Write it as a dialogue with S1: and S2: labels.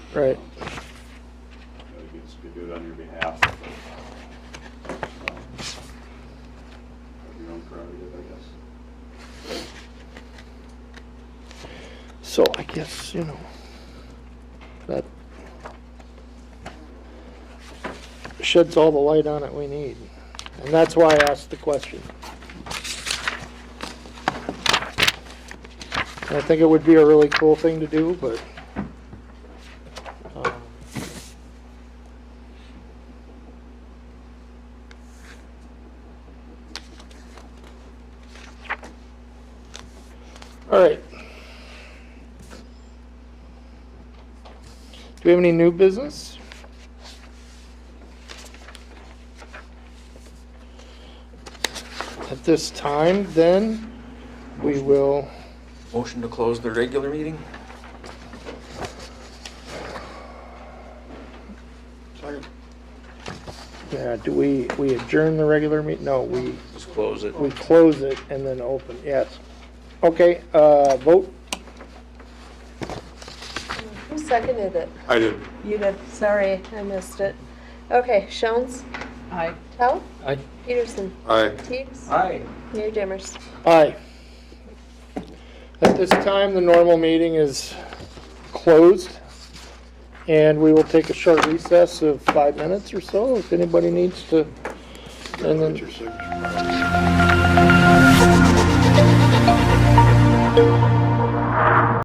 S1: Right.
S2: Nobody gets to do it on your behalf. but, um, Have your own prerogative, I guess.
S1: So I guess, you know, that sheds all the light on it we need. And that's why I asked the question. And I think it would be a really cool thing to do, but, um, all right. Do we have any new business? At this time, then, we will,
S3: Motion to close the regular meeting?
S1: yeah, do we, we adjourn the regular meet, no, we,
S3: Just close it.
S1: we close it and then open, yes. Okay, uh, vote,
S4: Who seconded it?
S2: I did.
S4: You did. Sorry, I missed it. Okay, Shones? Aye. Tell?
S1: Aye.
S4: Peterson?
S2: Aye.
S4: Teams?
S3: Aye.
S4: Mayor Dimmers?
S1: aye. At this time, the normal meeting is closed, and we will take a short recess of five minutes or so, if anybody needs to, and then...
S2: Put your signature.